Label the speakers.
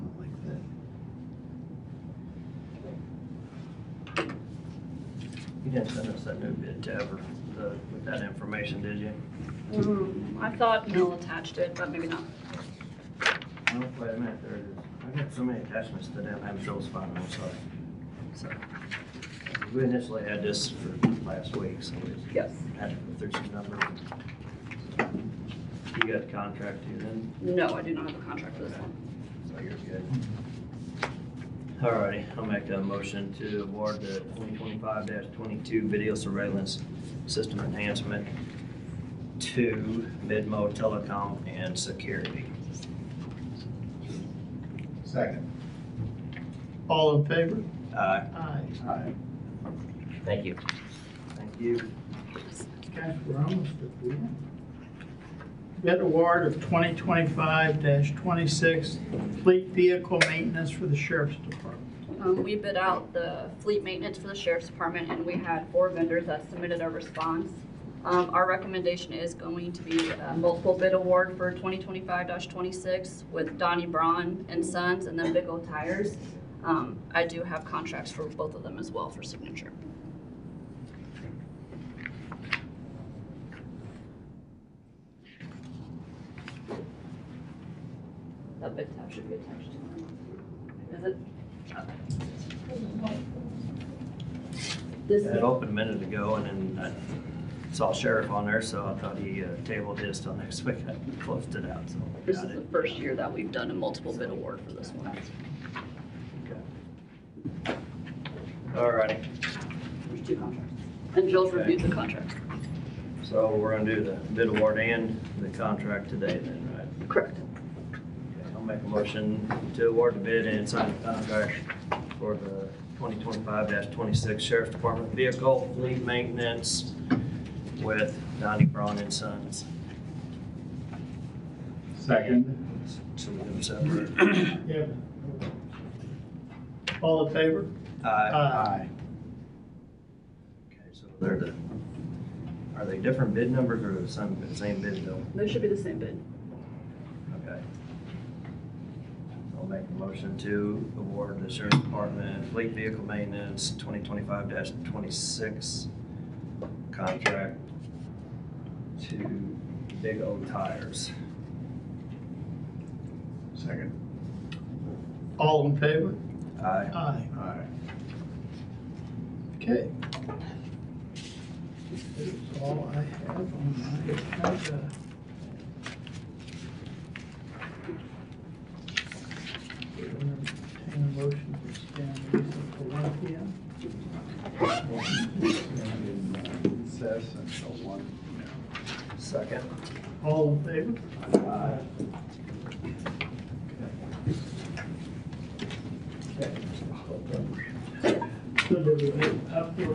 Speaker 1: You didn't send us that new bid to ever, the, with that information, did you?
Speaker 2: Um, I thought Neil attached it, but maybe not.
Speaker 1: No, wait a minute, there it is. I got so many attachments to them, I'm sure it's fine, I'm sorry.
Speaker 2: So,
Speaker 1: We initially had this for last week, so we just
Speaker 2: yes,
Speaker 1: had to go through some numbers. You got a contract too then,
Speaker 2: no, I do not have a contract for this one.
Speaker 1: so you're good. All righty, I'll make a motion to award the twenty twenty-five twenty-two video surveillance system enhancement to Midmo Telecom and Security.
Speaker 3: Second. All in favor?
Speaker 1: Aye.
Speaker 3: Aye. Aye.
Speaker 4: Thank you.
Speaker 1: Thank you.
Speaker 3: Gosh, we're almost at the end. Bid award of 2025-26 fleet vehicle maintenance for the sheriff's department.
Speaker 2: Um, we bid out the fleet maintenance for the sheriff's department and we had four vendors that submitted a response. Um, our recommendation is going to be a multiple bid award for twenty twenty-five twenty-six with Donnie Braun and Sons and then Big O Tires. Um, I do have contracts for both of them as well for signature. That big tab should be attached to mine. Is it? This
Speaker 1: It opened a minute ago and then I saw sheriff on there, so I thought he uh, tabled his till next week. I closed it out, so.
Speaker 2: This
Speaker 1: got
Speaker 2: is the
Speaker 1: it.
Speaker 2: first year that we've done a multiple bid award for this one.
Speaker 1: All righty,
Speaker 2: There's two contracts. And Jill's reviewed the contracts.
Speaker 1: so we're gonna do the bid award and the contract today then, right?
Speaker 2: Correct.
Speaker 1: Okay, I'll make a motion to award the bid and sign the contract for the twenty twenty-five twenty-six Sheriff's Department Vehicle Fleet Maintenance with Donnie Braun and Sons.
Speaker 3: Second.
Speaker 1: So we'll do separate.
Speaker 3: All in favor? Aye.
Speaker 1: Okay, so they're the, are they different bid numbers or the same, the same bid though?
Speaker 2: They should be the same bid.
Speaker 1: Okay. I'll make a motion to award the sheriff's department fleet vehicle maintenance twenty twenty-five twenty-six contract to Big O Tires.
Speaker 3: Second. All in favor?
Speaker 1: Aye.
Speaker 3: Aye. Aye. Okay. That is all I have on my agenda. We'll entertain a motion to stand recess for one P M.
Speaker 5: Recess until one.
Speaker 1: Second.
Speaker 3: All in favor?
Speaker 5: Aye.
Speaker 3: So do we have up for